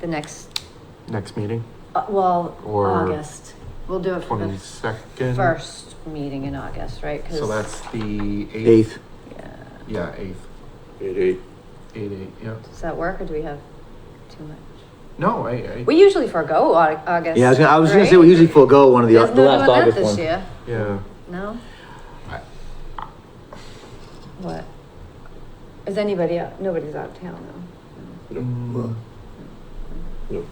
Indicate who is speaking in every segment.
Speaker 1: the next,
Speaker 2: Next meeting,
Speaker 1: uh, well,
Speaker 2: Or
Speaker 1: August. We'll do it for the
Speaker 2: twenty-second?
Speaker 1: first meeting in August, right? 'Cause-
Speaker 2: So that's the eighth,
Speaker 3: Eighth,
Speaker 1: Yeah.
Speaker 2: yeah, eighth,
Speaker 4: Eight, eight.
Speaker 2: eight, eight, yeah.
Speaker 1: Does that work or do we have too much?
Speaker 2: No, I, I,
Speaker 1: We usually forego Au- August.
Speaker 3: yeah, I was gonna, I was gonna say we
Speaker 1: right?
Speaker 3: usually forego one of the,
Speaker 1: There's
Speaker 3: the
Speaker 1: no
Speaker 3: last
Speaker 1: doing that
Speaker 3: August
Speaker 1: this
Speaker 3: one.
Speaker 1: year.
Speaker 2: yeah,
Speaker 1: No?
Speaker 2: I-
Speaker 1: What? Is anybody out? Nobody's out of town
Speaker 2: Mm,
Speaker 4: No, I'm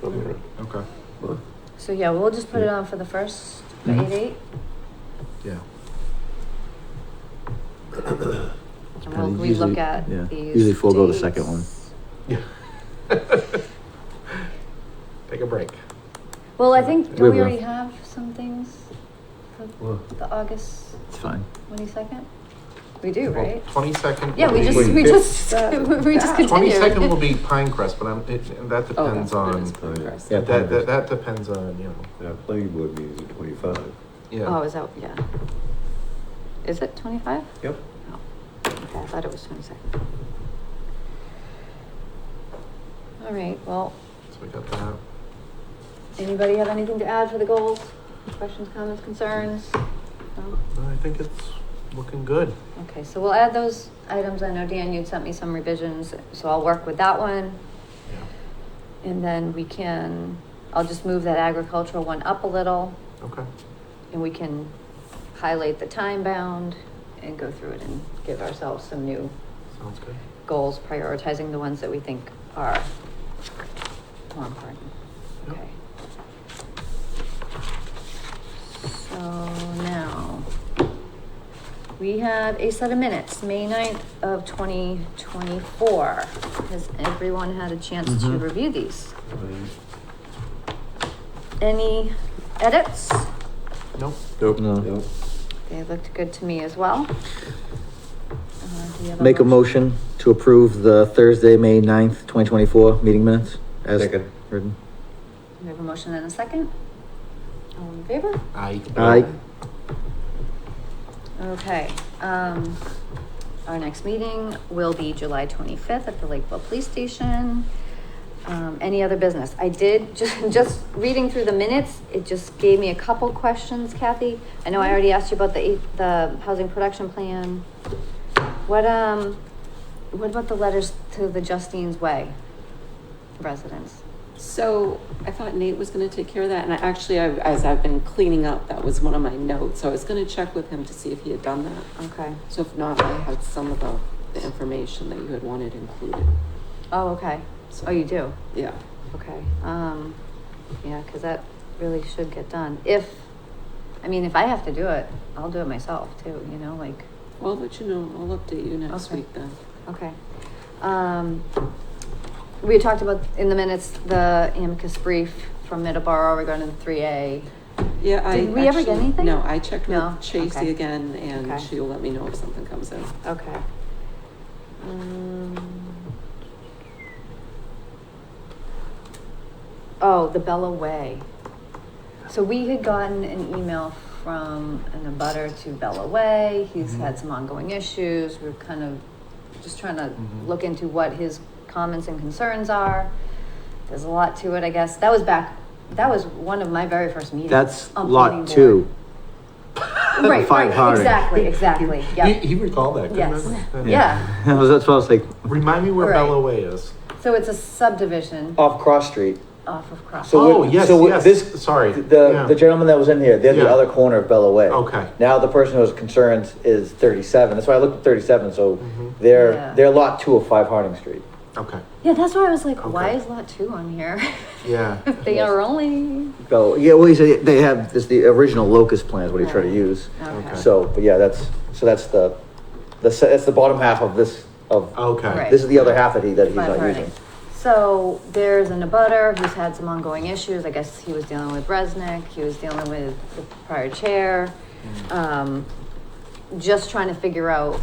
Speaker 4: all right.
Speaker 2: okay,
Speaker 1: though. So yeah, we'll just put it on for the first, for
Speaker 2: Mhm.
Speaker 1: eight eight.
Speaker 2: yeah.
Speaker 1: And we'll
Speaker 3: And
Speaker 1: relook
Speaker 3: usually-
Speaker 1: at
Speaker 3: yeah,
Speaker 1: these.
Speaker 3: usually forego the second one.
Speaker 1: dates.
Speaker 2: Take a break.
Speaker 1: Well, I think, do
Speaker 3: We
Speaker 1: we
Speaker 3: will.
Speaker 1: already have some things for the August
Speaker 3: It's fine.
Speaker 1: twenty-second? We do, right?
Speaker 2: Twenty-second.
Speaker 1: Yeah, we just, we just, we just
Speaker 2: Twenty-second will
Speaker 1: continued.
Speaker 2: be Pinecrest, but I'm, it, and that
Speaker 1: Oh,
Speaker 2: depends
Speaker 1: that's-
Speaker 2: on,
Speaker 1: that's Congress.
Speaker 3: Yeah.
Speaker 2: that, that, that depends on, you know,
Speaker 4: Now, planning board meeting's at twenty-five.
Speaker 1: Oh,
Speaker 2: yeah.
Speaker 1: is that, yeah. Is it twenty-five?
Speaker 4: Yep.
Speaker 1: Oh, okay, I thought it was twenty-second. All right, well,
Speaker 2: So we got that.
Speaker 1: anybody have anything to add for the goals? Questions, comments, concerns? No?
Speaker 2: Well, I think it's looking good.
Speaker 1: Okay, so we'll add those items. I know Dan, you'd sent me some revisions, so I'll work with that one.
Speaker 2: Yeah.
Speaker 1: And then we can, I'll just move that agricultural one up a little
Speaker 2: Okay,
Speaker 1: and we can highlight the time bound and go through it and give ourselves some new
Speaker 2: sounds good.
Speaker 1: goals, prioritizing the ones that we think are more important.
Speaker 2: Yep.
Speaker 1: Okay. So now, we have a set of minutes, May 9th of twenty twenty-four. Has everyone had a chance to
Speaker 3: Mhm.
Speaker 1: review these? Any edits?
Speaker 2: Nope.
Speaker 4: Nope.
Speaker 3: No.
Speaker 4: Nope.
Speaker 1: They looked good to me as well. Uh, do you have
Speaker 3: Make a motion to approve the Thursday, May ninth, twenty twenty-four meeting minutes as
Speaker 4: Second.
Speaker 3: written.
Speaker 1: We have a motion and a second. All in favor?
Speaker 2: I.
Speaker 3: Aye.
Speaker 1: Okay, um, our next meeting will be July twenty-fifth at the Lakeville Police Station. Um, any other business? I did, just, just reading through the minutes, it just gave me a couple questions, Kathy. I know I already asked you about the, eight- the housing production plan. What, um, what about the letters to the Justine's Way residents?
Speaker 5: So I thought Nate was gonna take care of that, and I actually, I, as I've been cleaning up, that was one of my notes, so I was gonna check with him to see if he had done that.
Speaker 1: Okay,
Speaker 5: So if not, I had some of the, the information that you had wanted included.
Speaker 1: oh, okay,
Speaker 5: So-
Speaker 1: oh, you do?
Speaker 5: Yeah,
Speaker 1: Okay, um, yeah, cause that really should get done. If, I mean, if I have to do it, I'll do it myself too, you know, like,
Speaker 5: well, I'll let you know, I'll update you next
Speaker 1: Okay.
Speaker 5: week then.
Speaker 1: okay. Um, we had talked about in the minutes, the amicus brief from Middleborough regarding the three A.
Speaker 5: Yeah, I.
Speaker 1: Did we ever get
Speaker 5: actually-
Speaker 1: anything?
Speaker 5: No, I checked
Speaker 1: No?
Speaker 5: with Tracy
Speaker 1: Okay.
Speaker 5: again, and
Speaker 1: Okay.
Speaker 5: she'll let me know if something comes in.
Speaker 1: Okay. Um, Oh, the Bella Way. So we had gotten an email from an abutter to Bella Way. He's
Speaker 3: Mm-hmm.
Speaker 2: Mhm.
Speaker 1: had some ongoing issues. We're kind of just trying to
Speaker 3: Mm-hmm.
Speaker 2: Mhm.
Speaker 1: look into what his comments and concerns are. There's a lot to it, I guess. That was back, that was one of my very first meetings.
Speaker 3: That's
Speaker 1: on
Speaker 3: lot
Speaker 1: planning board.
Speaker 3: two.
Speaker 1: Right,
Speaker 3: Five
Speaker 1: right,
Speaker 3: hard.
Speaker 1: exactly, exactly,
Speaker 2: He,
Speaker 1: yep,
Speaker 2: he recalled that,
Speaker 1: Yes.
Speaker 2: couldn't he?
Speaker 1: yeah.
Speaker 3: That was- That's what I was like,
Speaker 2: Remind me where
Speaker 1: Right.
Speaker 2: Bella Way is.
Speaker 1: So it's a subdivision
Speaker 3: off Cross Street.
Speaker 1: off of Cross.
Speaker 2: Oh,
Speaker 3: we-
Speaker 2: yes,
Speaker 3: we-
Speaker 2: yes.
Speaker 3: this-
Speaker 2: Sorry.
Speaker 3: The,
Speaker 2: Yeah.
Speaker 3: the gentleman that was in here, they're the
Speaker 2: Yeah.
Speaker 3: other corner of Bella Way.
Speaker 2: Okay.
Speaker 3: Now the person who's concerned is thirty-seven. That's why I looked at thirty-seven, so
Speaker 2: Mhm.
Speaker 1: Yeah.
Speaker 3: they're, they're lot two of five Harding Street.
Speaker 2: Okay,
Speaker 1: Yeah, that's why I was like, why
Speaker 2: Okay.
Speaker 1: is lot two on here?
Speaker 2: Yeah.
Speaker 1: If they are only.
Speaker 3: Bella, yeah, well, he said they have, this, the original locust plan is what he tried to
Speaker 1: Right.
Speaker 3: use.
Speaker 1: Okay.
Speaker 3: So, but yeah, that's, so that's the, the, se- that's the bottom half of this, of,
Speaker 2: okay.
Speaker 1: Right.
Speaker 3: this is the other half that he, that he's
Speaker 1: Five
Speaker 3: not
Speaker 1: Harding.
Speaker 3: using.
Speaker 1: So there's an abutter who's had some ongoing issues. I guess he was dealing with Resnick. He was dealing with the prior chair.
Speaker 2: Hmm.
Speaker 1: Um, just trying to figure out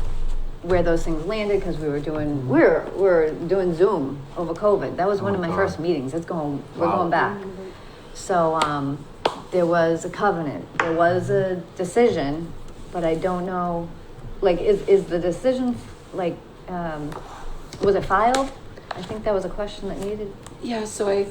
Speaker 1: where those things landed because we were doing we we're we we're doing Zoom over COVID. That was one
Speaker 2: Hmm. Oh
Speaker 1: of my
Speaker 2: my God.
Speaker 1: first meetings. It's going we're
Speaker 2: Wow.
Speaker 1: going back. So um, there was a covenant. There was a decision, but I don't know. Like, is is the decision like um, was it filed? I think that was a question that needed
Speaker 5: Yeah, so I